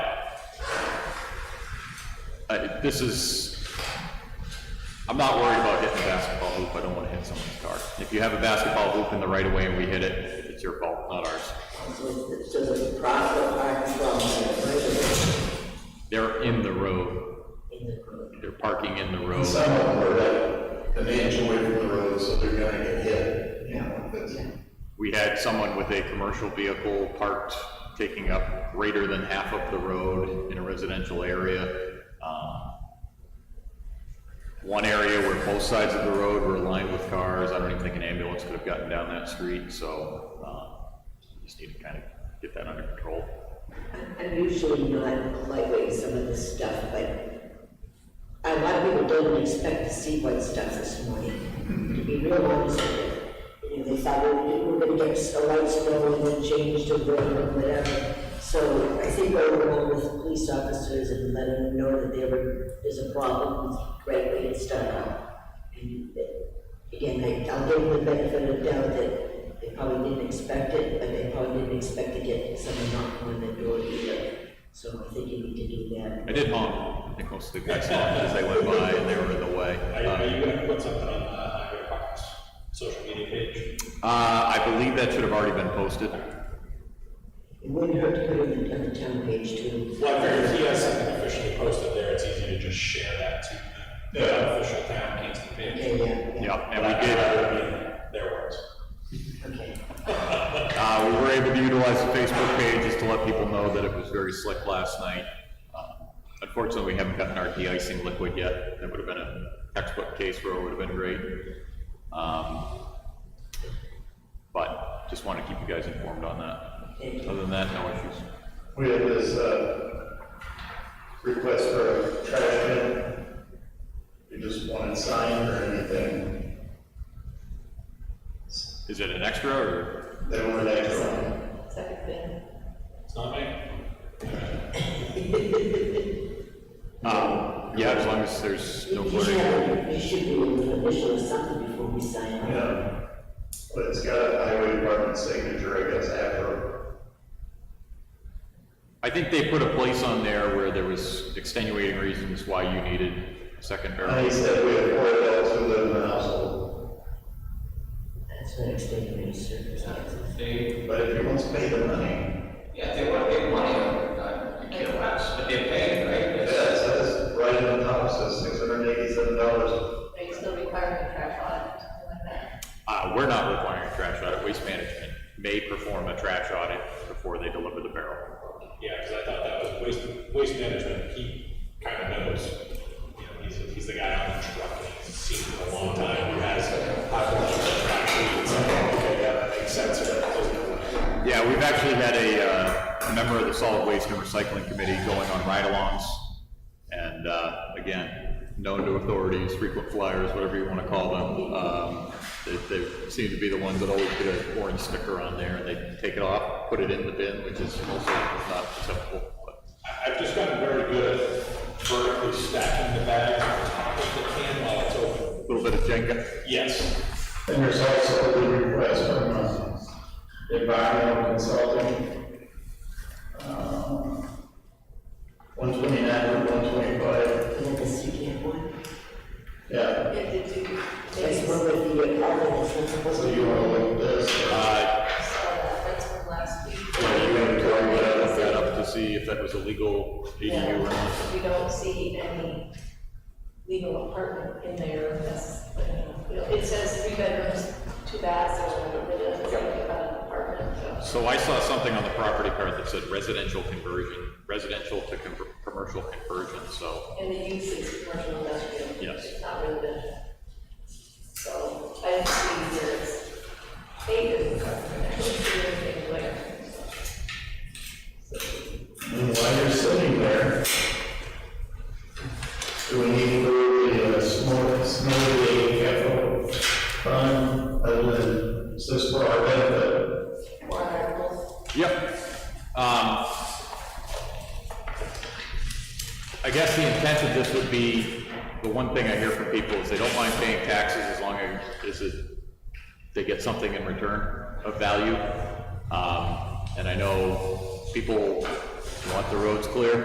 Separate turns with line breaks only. I, this is, I'm not worried about hitting a basketball hoop, I don't wanna hit someone's car. If you have a basketball hoop in the right of way and we hit it, it's your fault, not ours.
It's just a process I'm from, the
They're in the road. They're parking in the road.
Some of them are like an inch away from the road, so they're gonna get hit, you know, that's,
We had someone with a commercial vehicle parked, taking up greater than half of the road in a residential area. Um, One area where both sides of the road were lined with cars, I don't even think an ambulance could have gotten down that street, so, uh, just need to kind of get that under control.
I'm usually not lightweight some of this stuff, but a lot of people don't expect to see white stuff this morning, to be real honest with you. You know, they thought we we were gonna get a light snow and then change to rain or whatever. So I think we're going with police officers and letting them know that there were- there's a problem with right way and stuff. And that- again, I- I'll give them the benefit of the doubt that they probably didn't expect it, but they probably didn't expect to get someone knocking on the door either. So I think you need to do that.
I did honk, I think most of the guys honked as they went by and they were in the way.
Are you, are you gonna put something on, uh, on your Hawkins social media page?
Uh, I believe that should have already been posted.
It wouldn't hurt to put it on the town page too.
Well, I figure if he has something officially posted there, it's easy to just share that to the official town Kingston
Yeah,
page.
yeah, yeah.
Yep, and we
I'd
did.
rather be in Their words.
Okay.
Uh, we were able to utilize the Facebook page just to let people know that it was very slick last night. Uh, Unfortunately, we haven't gotten our de-icing liquid yet. That would have been a textbook case where it would have been great. Um, But just want to keep you guys informed on that. Other than that, no issues.
we had this, uh, request for a trash bin. We just wanted sign or anything,
Is it an extra or?
they weren't extra.
Second thing.
It's not me.
Um, Yeah, as long as there's no
You should
blurring.
have, you should be an official or something before we sign off.
Yeah, but it's got a highway department signature, I guess, after,
I think they put a place on there where there was extenuating reasons why you needed a second
and
barrel.
he said we have four adults who live in the household,
That's not extenuating circumstances.
They,
but if he wants to pay the money,
yeah, they want to make money on it, uh, you can't last, but they're paying, right?
yeah, it says right in the top, it says six hundred and eighty-seven dollars.
Are you still requiring a trash audit or something like that?
Uh, we're not requiring a trash audit, waste management may perform a trash audit before they deliver the barrel.
Yeah, cause I thought that was waste, waste management, he kinda knows. You know, he's, he's the guy on the truck, and he's seen it a long time, who has a hot water truck, and it's like, okay, yeah, that makes sense, or that doesn't.
Yeah, we've actually had a, uh, a member of the solid waste and recycling committee going on ride-alongs. And, uh, again, known to authorities, frequent flyers, whatever you wanna call them, um, they, they seem to be the ones that always get an orange sticker on there and they take it off, put it in the bin, which is also not acceptable. but-
I- I've just gotten very good at vertically stacking the bags on top of the can while it's open.
Little bit of Jenga.
Yes,
And there's also the request from uh, environmental consulting. uh, One twenty-nine, one twenty-five,
And the secant one,
yeah,
Yeah, did you,
that's
they
one
saw
with the, all of the principles.
so you wanna look at this,
Uh,
that, that's from last week.
Yeah, you and Tori would have looked that up to see if that was a legal ADU or not.
Yeah, We don't see any legal apartment in there, that's, you know, it says three bedrooms, two baths, or whatever, it doesn't say anything about an apartment, so.
So I saw something on the property card that said residential conversion, residential to com- commercial conversion, so.
And the use is commercial industrial.
Yes.
It's not residential. So I didn't see there's acres, I didn't see anything there.
and while you're sitting there, do we need for the uh, snow, snow day capital fund, other than, is this for our benefit?
Warrant articles.
Yep. Um, I guess the intent of this would be, the one thing I hear from people is they don't mind paying taxes as long as it- they get something in return of value. Um, And I know people want the roads clear,